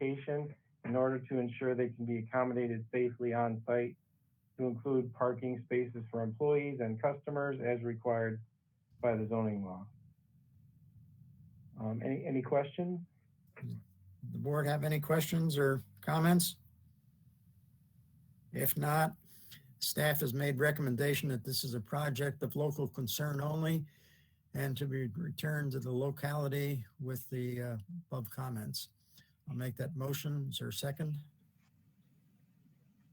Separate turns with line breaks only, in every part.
location in order to ensure they can be accommodated safely on site to include parking spaces for employees and customers as required by the zoning law. Um, any, any questions?
The board have any questions or comments? If not, staff has made recommendation that this is a project of local concern only and to be returned to the locality with the uh, above comments. I'll make that motion. Is there a second?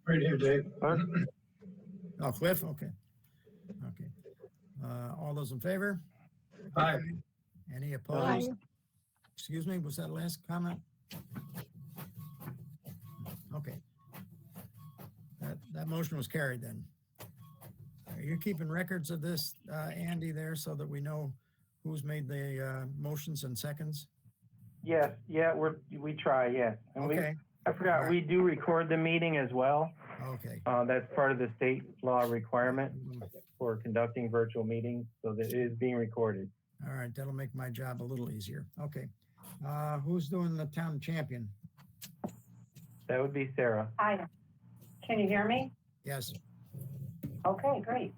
Right here, Dave.
Oh, Cliff, okay. Okay. Uh, All those in favor?
Aye.
Any opposed? Excuse me, was that last comment? Okay. That, that motion was carried then. Are you keeping records of this, uh, Andy, there so that we know who's made the uh, motions and seconds?
Yes, yeah, we're, we try, yes. And we,
Okay,
I forgot, we do record the meeting as well.
okay.
Uh, that's part of the state law requirement for conducting virtual meetings, so that it is being recorded.
All right, that'll make my job a little easier. Okay. Uh, Who's doing the town champion?
That would be Sarah.
Hi. Can you hear me?
Yes,
Okay, great.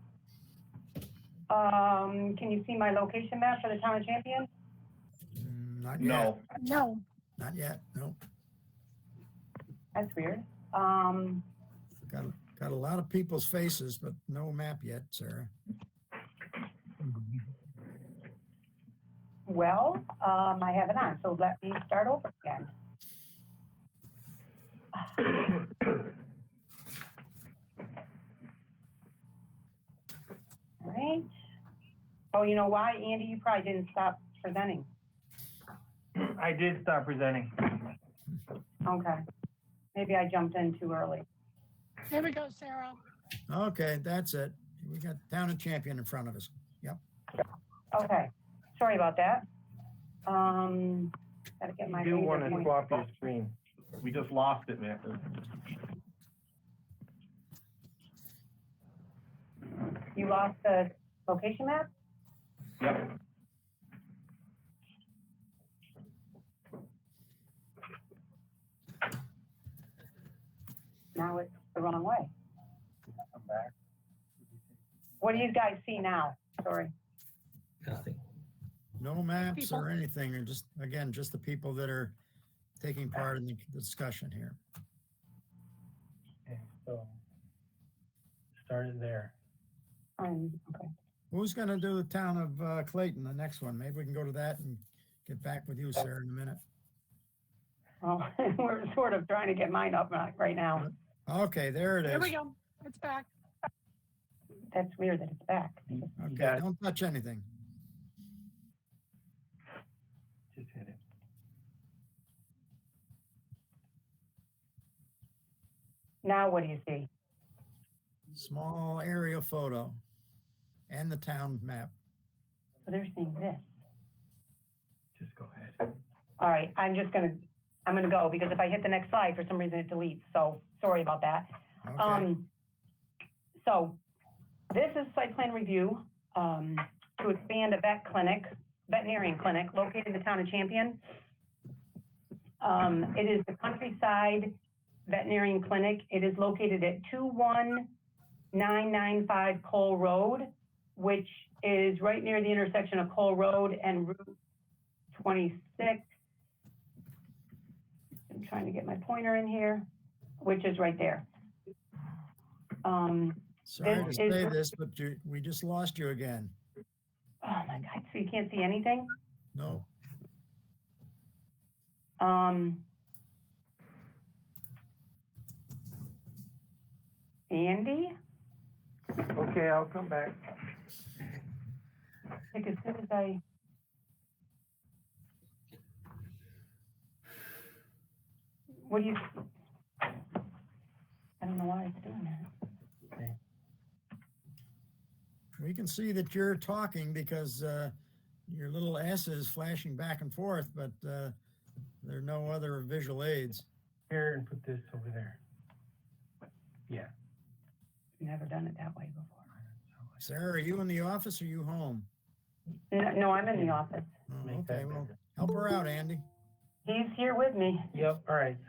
Um, can you see my location map for the town of Champion?
Mm, not yet.
No,
No,
Not yet, no.
That's weird. Um,
Got, got a lot of people's faces, but no map yet, Sarah.
well, um, I have it on, so let me start over again. All right. Oh, you know why, Andy? You probably didn't stop presenting.
I did stop presenting.
Okay. Maybe I jumped in too early.
there we go, Sarah.
Okay, that's it. We got town and champion in front of us.
Okay, sorry about that. Um, gotta get my.
You do
finger
want to
point-
swap your screen.
We just lost it, man.
You lost the location map?
Yep.
Now it's the wrong way. What do you guys see now? Sorry.
No maps
People.
or anything, or just, again, just the people that are taking part in the discussion here.
Okay, so start it there.
Um, okay.
Who's going to do the town of uh, Clayton, the next one? Maybe we can go to that and get back with you, Sarah, in a minute.
Well, we're sort of trying to get mine up right- right now.
Okay, there it
There we
is.
go. It's back.
That's weird that it's back.
Okay,
got it.
don't touch anything.
Just hit it.
Now what do you see?
Small aerial photo and the town map.
So They're seeing this.
Just go ahead.
All right, I'm just gonna, I'm gonna go because if I hit the next slide, for some reason it deletes. So sorry about that.
Okay,
Um, so this is site plan review, um, to expand a vet clinic, veterinarian clinic located in the town of Champion. Um, it is the countryside veterinarian clinic. It is located at two one nine nine five Cole Road, which is right near the intersection of Cole Road and Route twenty-six. I'm trying to get my pointer in here, which is right there. Um,
sorry to
this
say
is-
this, but you, we just lost you again.
oh my God, so you can't see anything?
No,
Um, Andy?
Okay, I'll come back.
Like as soon as I. What do you? I don't know why it's doing that.
We can see that you're talking because uh, your little S is flashing back and forth, but uh, there are no other visual aids.
Here and put this over there. Yeah.
Never done it that way before.
Sarah, are you in the office or you home?
No, no, I'm in the office.
Oh,
Make that
okay, well,
bigger.
help her out, Andy.
He's here with me.
Yep, all right.